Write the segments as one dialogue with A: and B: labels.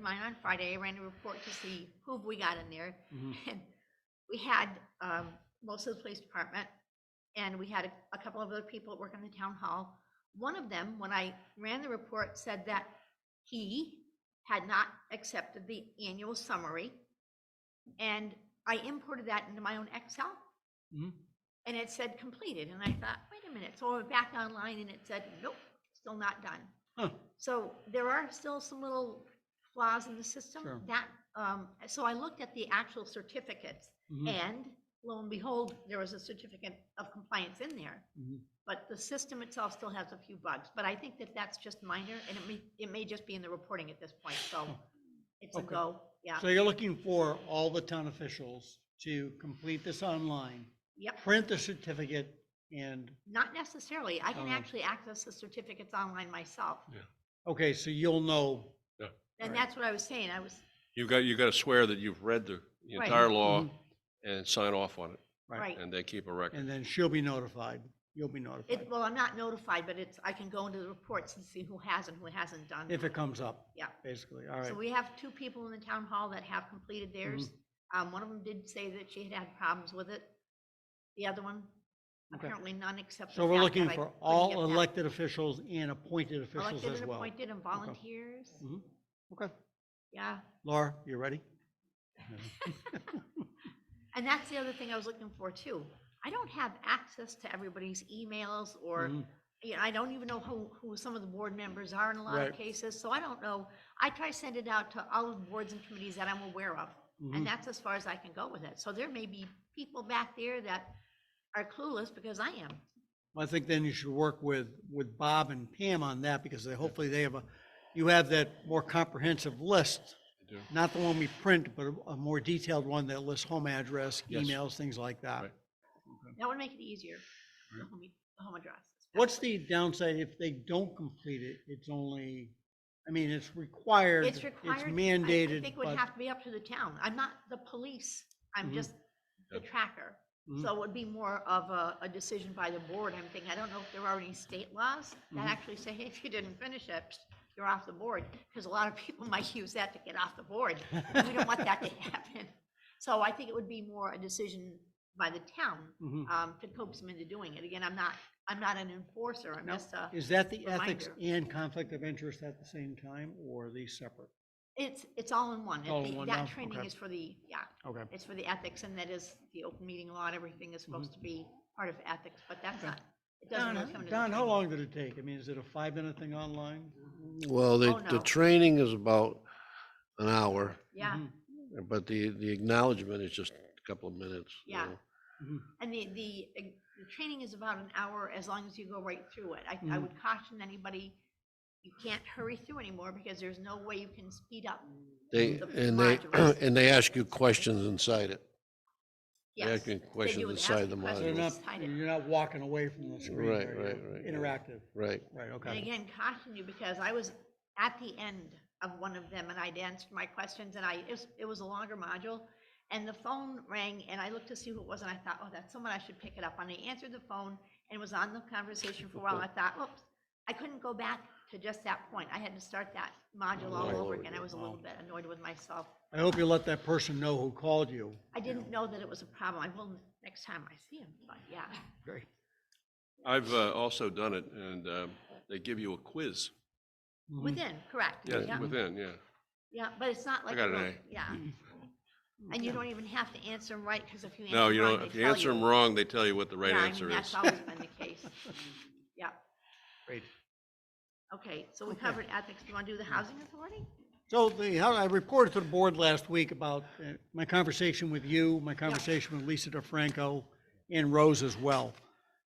A: mine on Friday, I ran a report to see who we got in there.
B: Mhm.
A: And we had um, most of the police department, and we had a, a couple of other people that work in the town hall. One of them, when I ran the report, said that he had not accepted the annual summary. And I imported that into my own Excel,
B: Mhm.
A: and it said completed, and I thought, wait a minute, so I went back online and it said, nope, still not done.
B: Huh.
A: So there are still some little flaws in the
B: Sure.
A: system that, um, so I looked at the actual certificates
B: Mhm.
A: and lo and behold, there was a certificate of compliance in there.
B: Mhm.
A: But the system itself still has a few bugs, but I think that that's just minor and it may, it may just be in the reporting at this point, so it's a
B: Okay.
A: go, yeah,
B: So you're looking for all the town officials to complete this online,
A: yep.
B: print the certificate, and,
A: Not necessarily, I can
B: Uh-huh.
A: actually access the certificates online myself,
B: okay, so you'll know.
A: and
B: Right.
A: that's what I was saying, I was,
C: You've got, you've got to swear that you've read the the
A: Right. Mm-hmm.
C: entire law
B: Mhm.
C: and sign off on it,
A: right.
C: and they keep a record.
B: And then she'll be notified, you'll be notified,
A: It, well, I'm not notified, but it's, I can go into the reports and see who has and who hasn't done.
B: if it comes up.
A: Yeah.
B: Basically, all right.
A: So we have two people in the town hall that have completed theirs.
B: Mm-hmm.
A: Um, one of them did say that she had had problems with it. The other one,
B: Okay.
A: apparently none except.
B: So
A: the
B: we're
A: fact
B: looking
A: that I
B: for
A: couldn't
B: all
A: get that
B: elected officials and appointed officials
A: Elected
B: as
A: and
B: well.
A: appointed and volunteers.
B: Mhm. Okay,
A: Yeah.
B: Laura, you ready?
A: And that's the other thing I was looking for too. I don't have access to everybody's emails or
B: Mhm.
A: you know, I don't even know who, who some of the board members are in a lot of
B: Right.
A: cases, so I don't know. I try to send it out to all of the boards and committees that I'm aware of,
B: Mhm.
A: and that's as far as I can go with it. So there may be people back there that are clueless because I am.
B: I think then you should work with, with Bob and Pam on that, because they, hopefully they have a, you have that more comprehensive list,
C: They do.
B: not the one we print, but a- a more detailed one that lists home address,
C: Yes.
B: emails, things like that.
C: Right.
A: That would make it easier, the
C: Right.
A: home, the home address.
B: What's the downside if they don't complete it? It's only, I mean, it's required,
A: It's
B: it's
A: required. I- I
B: mandated,
A: think it would
B: but.
A: have to be up to the town. I'm not the police, I'm
B: Mhm.
A: just the tracker.
B: Mhm.
A: So it would be more of a, a decision by the board, I'm thinking, I don't know if there are any state laws that
B: Mhm.
A: actually say, hey, if you didn't finish it, psst, you're off the board, because a lot of people might use that to get off the board. We don't want that to happen. So I think it would be more a decision by the town,
B: Mhm.
A: um, to coax them into doing it. Again, I'm not, I'm not an enforcer, I'm
B: Now,
A: just a,
B: Is that the ethics
A: reminder.
B: and conflict of interest at the same time, or are these separate?
A: it's, it's all in one. It-
B: All in
A: the-
B: one now?
A: That training
B: Okay.
A: is for the, yeah,
B: Okay.
A: it's for the ethics, and that is the open meeting law, and everything is supposed to be part of ethics, but that's not, it doesn't really
B: Mm-hmm. Don,
A: come into the
B: Don, how
A: training.
B: long did it take? I mean, is it a five-minute thing online?
D: Well, the,
A: Oh, no.
D: the training is about an hour,
A: Yeah.
B: Mhm.
D: but the, the acknowledgement is just a couple of minutes. you
A: Yeah.
D: know.
B: Mhm.
A: And the, the, uh, the training is about an hour as long as you go right through it. I, I
B: Mhm.
A: would caution anybody, you can't hurry through anymore because there's no way you can speed up.
D: They,
A: The
D: and they,
A: modules.
D: and they ask you questions inside it. They
A: Yes,
D: ask you
A: They do
D: questions
A: with
D: inside the
A: asking questions.
B: So You're
D: module.
B: not,
A: Inside it.
B: you're not walking away from the screen.
D: Right, right,
B: are you?
D: right, right.
B: Interactive,
D: Right.
B: right,
A: and
B: okay.
A: again, caution you because I was at the end of one of them and I'd answered my questions and I, it was, it was a longer module. And the phone rang and I looked to see who it was and I thought, oh, that's someone I should pick it up. And I answered the phone and was on the conversation for a while. I thought, oops, I couldn't go back to just that point. I had to start that module all
D: All
A: over
D: over
A: again. I
D: again.
A: was a little bit annoyed with myself.
B: I hope you let that person know who called you.
A: I didn't know that it was a problem. I will next time I see him, but yeah.
C: Mm-hmm.
B: Great.
C: I've uh, also done it, and um, they give you a quiz,
B: Mhm.
A: Within, correct.
C: yeah, within, yeah.
A: Yeah, but it's not like.
C: got
A: a
C: an
A: real-
C: A.
A: Yeah. And you don't even have to answer them right, because if you.
C: No,
A: answer
C: you
A: wrong,
C: don't,
A: they
C: if you
A: tell
C: answer them wrong, they tell you what the right
A: Yeah, I
C: answer
A: mean, that's
C: is.
A: always been the case. Yeah,
B: Great.
A: okay, so we
B: Okay.
A: covered ethics. Do you want to do the housing authority?
B: So the, how- I reported to the board last week about uh, my conversation with you, my conversation with Lisa DeFranco, and Rose as well.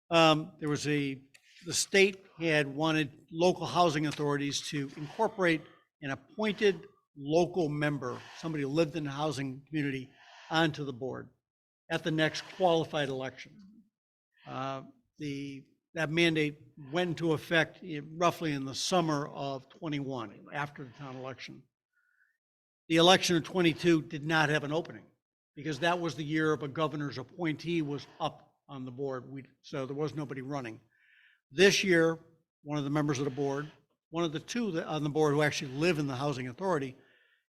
B: Um, There was a, the state had wanted local housing authorities to incorporate an appointed local member, somebody who lived in the housing community, onto the board at the next qualified election. Uh, The, that mandate went into effect in- roughly in the summer of '21, after the town election. The election of '22 did not have an opening, because that was the year of a governor's appointee was up on the board, we, so there was nobody running. This year, one of the members of the board, one of the two that- on the board who actually live in the housing authority,